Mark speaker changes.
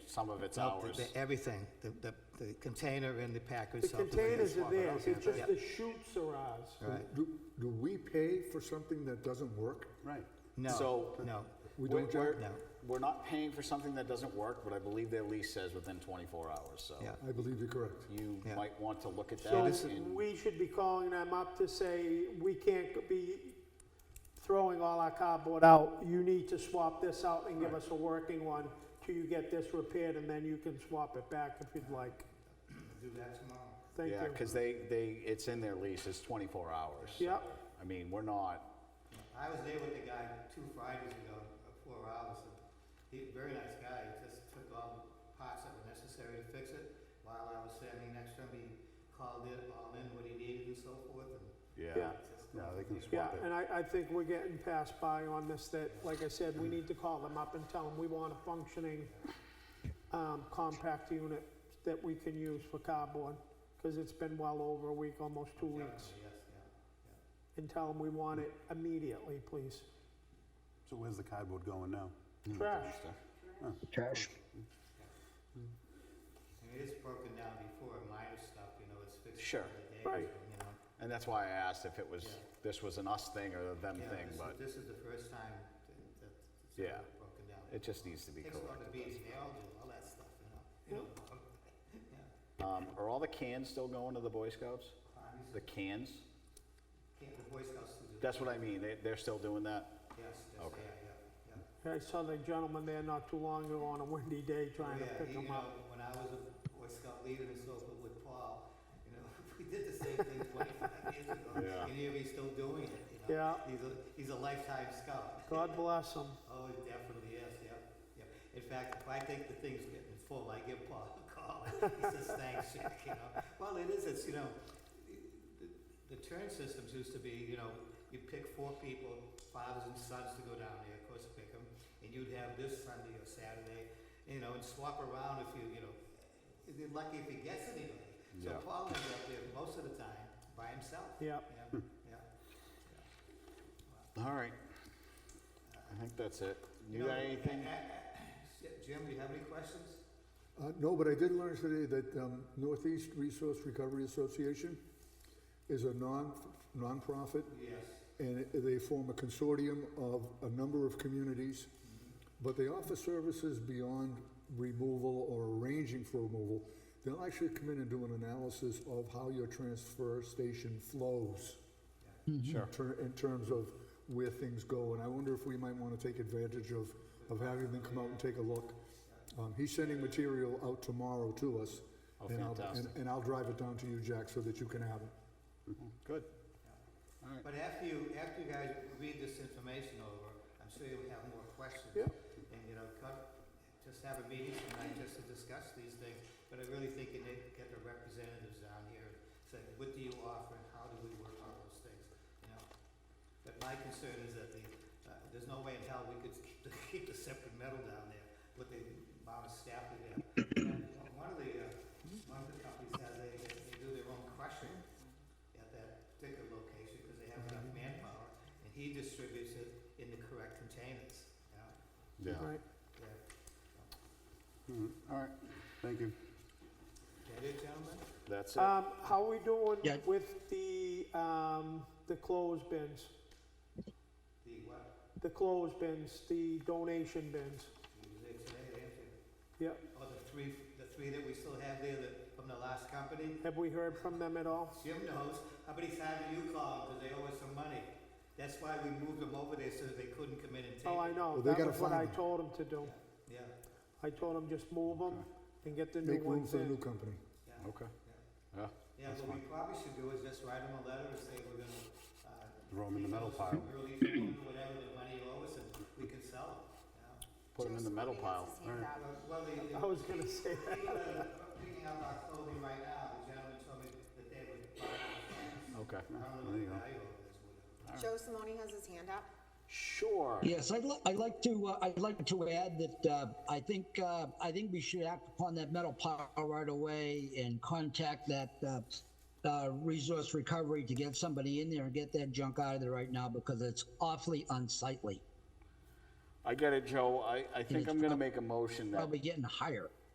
Speaker 1: some of it's
Speaker 2: No, the-
Speaker 1: ours.
Speaker 2: the- Everything, the, the, the container and the package.
Speaker 3: The
Speaker 2: subdivision.
Speaker 3: containers are theirs, it's
Speaker 2: Yeah.
Speaker 3: just the chutes are ours.
Speaker 2: Right,
Speaker 4: Do, do we pay for something that doesn't work?
Speaker 1: Right.
Speaker 2: no,
Speaker 1: So.
Speaker 2: no.
Speaker 4: We
Speaker 1: we're-
Speaker 4: don't, Jack?
Speaker 1: we're-
Speaker 2: No.
Speaker 1: We're not paying for something that doesn't work, but I believe their lease says within 24 hours, so.
Speaker 3: Oh.
Speaker 2: Yeah.
Speaker 4: I believe you're correct.
Speaker 1: You
Speaker 2: Yeah.
Speaker 1: might want to look at
Speaker 3: So
Speaker 1: that and,
Speaker 3: we should be calling them up to say, we can't be throwing all our cardboard out. You need to swap this out and give us a working one till you get this repaired and then you can swap it back if you'd like.
Speaker 2: Do that tomorrow.
Speaker 3: Thank
Speaker 1: yeah,
Speaker 3: you.
Speaker 1: because they, they, it's in their lease, it's 24 hours.
Speaker 3: Yep.
Speaker 1: so, I mean, we're not,
Speaker 5: I was there with the guy two Fridays ago, uh, four hours, and he, very nice guy, he just took all the parts that were necessary to fix it. While I was standing next to him, he called it all in, what he needed and so forth, and
Speaker 1: yeah.
Speaker 3: Yeah.
Speaker 5: just.
Speaker 1: No, they can
Speaker 3: Yeah,
Speaker 1: swap
Speaker 3: and
Speaker 1: it.
Speaker 3: I, I think we're getting passed by on this, that, like I said, we need to call them up and tell them we want a functioning, um, compact unit that we can use for cardboard, because it's been well over a week, almost two weeks.
Speaker 5: Definitely, Yes, yeah.
Speaker 3: And tell them we want it immediately, please.
Speaker 6: So where's the cardboard going now?
Speaker 3: Trash.
Speaker 1: Hmm.
Speaker 7: Trash.
Speaker 5: I mean, it's broken down before, minor stuff, you know, it's fixed.
Speaker 1: Sure,
Speaker 5: for the day,
Speaker 3: right.
Speaker 5: You know.
Speaker 1: And that's why I asked if it was, this was an us thing or a them
Speaker 5: Yeah,
Speaker 1: thing,
Speaker 5: this is-
Speaker 1: but
Speaker 5: This is the first time that, that it's
Speaker 1: Yeah.
Speaker 5: ever broken down.
Speaker 1: it just needs to be
Speaker 5: Takes a lot
Speaker 1: corrected.
Speaker 5: of beating, they all do, all that stuff, you know. You know, Yeah,
Speaker 1: Um, are all the cans still going to the Boy Scouts?
Speaker 5: Obviously.
Speaker 1: The cans?
Speaker 5: can't, the Boy Scouts do that,
Speaker 1: That's what I mean, they, they're still doing that?
Speaker 5: yes, yes,
Speaker 1: Okay.
Speaker 5: yeah, yeah, yeah.
Speaker 3: I saw that gentleman there not too long ago on a windy day trying to
Speaker 5: Yeah,
Speaker 3: pick
Speaker 5: you
Speaker 3: them
Speaker 5: know,
Speaker 3: up.
Speaker 5: When I was a Boy Scout leader and so forth with Paul, you know, we did the same thing twenty-five years ago.
Speaker 1: Yeah.
Speaker 5: And here he's still doing it, you know.
Speaker 3: Yeah.
Speaker 5: He's a, he's a lifetime scout.
Speaker 3: God bless him.
Speaker 5: Oh, he definitely is, yep, yep. In fact, if I think the thing's getting full, I give Paul a call. He says, thanks, Jack, you know. Well, it is, it's, you know, the, the turn systems used to be, you know, you pick four people, fathers and sons to go down there, of course, pick them, and you'd have this Sunday or Saturday, you know, and swap around if you, you know, you're lucky if he gets anybody. So
Speaker 1: Yeah.
Speaker 5: Paul ends up there most of the time by himself.
Speaker 3: Yep.
Speaker 5: Yeah,
Speaker 1: Hmm.
Speaker 5: yeah.
Speaker 1: All right. I think that's it. You
Speaker 5: know,
Speaker 1: got anything?
Speaker 5: Jim, do you have any questions?
Speaker 4: Uh, no, but I did learn today that um, Northeast Resource Recovery Association is a non, nonprofit
Speaker 5: Yes.
Speaker 4: and it- they form a consortium of a number of communities, but they offer services beyond removal or arranging for removal. They'll actually come in and do an analysis of how your transfer station flows. Sure. In terms of where things go, and I wonder if we might want to take advantage of, of having them come out and take a look. Um, he's sending material out tomorrow to us.
Speaker 1: Oh,
Speaker 4: and I'll-
Speaker 1: fantastic.
Speaker 4: And, and I'll drive it down to you, Jack, so that you can have it.
Speaker 1: Good.
Speaker 5: But after you, after you guys read this information over, I'm sure you'll have more questions.
Speaker 3: Yeah.
Speaker 5: And, you know, come, just have a meeting tonight just to discuss these things, but I really think you need to get the representatives down here and say, what do you offer and how do we work on those things, you know? But my concern is that the, uh, there's no way in hell we could keep the, keep the separate metal down there with the amount of staff we have. And One of the, uh, one of the companies has a, they do their own crushing at that particular location because they have enough manpower, and he distributes it in the correct containers, you know?
Speaker 1: Yeah.
Speaker 3: Right.
Speaker 5: Yeah.
Speaker 6: All right, thank you.
Speaker 5: That it, gentlemen?
Speaker 1: That's it.
Speaker 3: Um, how we doing
Speaker 7: Yeah.
Speaker 3: with the, um, the clothes bins?
Speaker 5: The what?
Speaker 3: The clothes bins, the donation bins?
Speaker 5: You was there today, didn't you?
Speaker 3: Yep.
Speaker 5: Oh, the three, the three that we still have there that, from the last company?
Speaker 3: Have we heard from them at all?
Speaker 5: Jim knows, how many times do you call them, because they owe us some money? That's why we moved them over there so that they couldn't come in and take it.
Speaker 3: Oh, I
Speaker 4: Well,
Speaker 3: know.
Speaker 4: they
Speaker 3: That
Speaker 4: gotta
Speaker 3: was what
Speaker 4: find
Speaker 3: I
Speaker 4: them.
Speaker 3: told them to do.
Speaker 5: Yeah,
Speaker 3: I told them just move them and get the new
Speaker 4: Make room
Speaker 3: ones
Speaker 4: for the new
Speaker 3: in.
Speaker 4: company.
Speaker 5: yeah.
Speaker 1: Okay. Yeah.
Speaker 5: Yeah, what we probably should do is just write them a letter and say we're gonna, uh.
Speaker 6: Throw 'em in the
Speaker 5: these
Speaker 6: metal
Speaker 5: others
Speaker 6: pile.
Speaker 5: are Really, whatever the money you owe us, and we can sell them, yeah.
Speaker 1: Put them in the metal pile.
Speaker 3: Uh,
Speaker 5: Well, Well, the, uh, the.
Speaker 3: I was gonna say that.
Speaker 5: people that are picking up our clothing right now, the gentleman told me that they would buy it.
Speaker 1: Okay.
Speaker 5: I don't know what the value of this would have.
Speaker 8: Joe Simone has his hand up.
Speaker 1: Sure.
Speaker 7: Yes, I'd, li- I'd like to, uh, I'd like to add that, uh, I think, uh, I think we should act upon that metal pile right away and contact that, uh, uh, resource recovery to get somebody in there and get that junk out of there right now because it's awfully unsightly.
Speaker 1: I get it, Joe. I, I think
Speaker 7: it's
Speaker 1: I'm gonna
Speaker 7: prob-
Speaker 1: make a motion that,
Speaker 7: Probably getting higher.